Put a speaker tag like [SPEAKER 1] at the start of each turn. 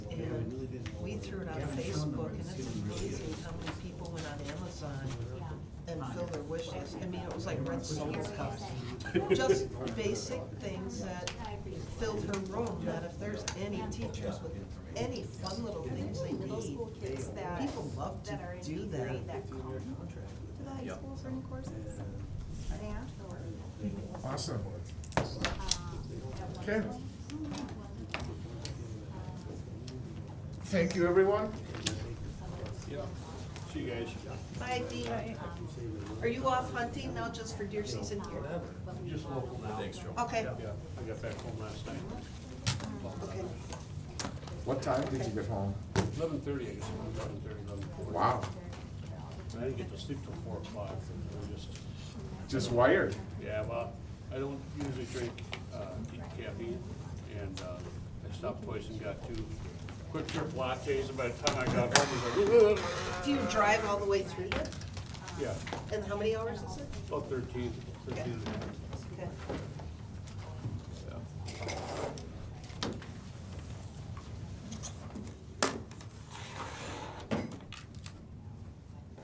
[SPEAKER 1] threw it on Facebook, and it's amazing how many people went on Amazon and filled their wish list. I mean, it was like red solo cups. Just basic things that filled her room, that if there's any teachers with any fun little things they
[SPEAKER 2] Those
[SPEAKER 1] need,
[SPEAKER 2] school kids that,
[SPEAKER 1] people love to
[SPEAKER 2] that are in
[SPEAKER 1] do
[SPEAKER 2] eighth
[SPEAKER 1] that.
[SPEAKER 2] grade that come to the high school for any courses, and they afterward.
[SPEAKER 3] Awesome.
[SPEAKER 2] um, at one
[SPEAKER 3] Okay.
[SPEAKER 2] point.
[SPEAKER 3] Thank you, everyone.
[SPEAKER 4] See you guys.
[SPEAKER 1] Hi, Dean. Are you off hunting now just for deer season here?
[SPEAKER 4] Just local now. Thanks, Joe.
[SPEAKER 1] Okay,
[SPEAKER 4] Yeah, I got back home last night.
[SPEAKER 1] okay.
[SPEAKER 3] What time did you get home?
[SPEAKER 4] Eleven thirty, I guess, eleven thirty, eleven forty.
[SPEAKER 3] Wow,
[SPEAKER 4] And I didn't get to sleep till four o'clock. It was just,
[SPEAKER 3] just wired.
[SPEAKER 4] yeah, well, I don't usually drink, uh, deep caffeine. And, uh, I stopped twice and got two quick trip lattes. And by the time I got home, I was like,
[SPEAKER 1] Do you drive all the way through it?
[SPEAKER 4] yeah,
[SPEAKER 1] And how many hours is it?
[SPEAKER 4] about thirteen, thirteen and a half.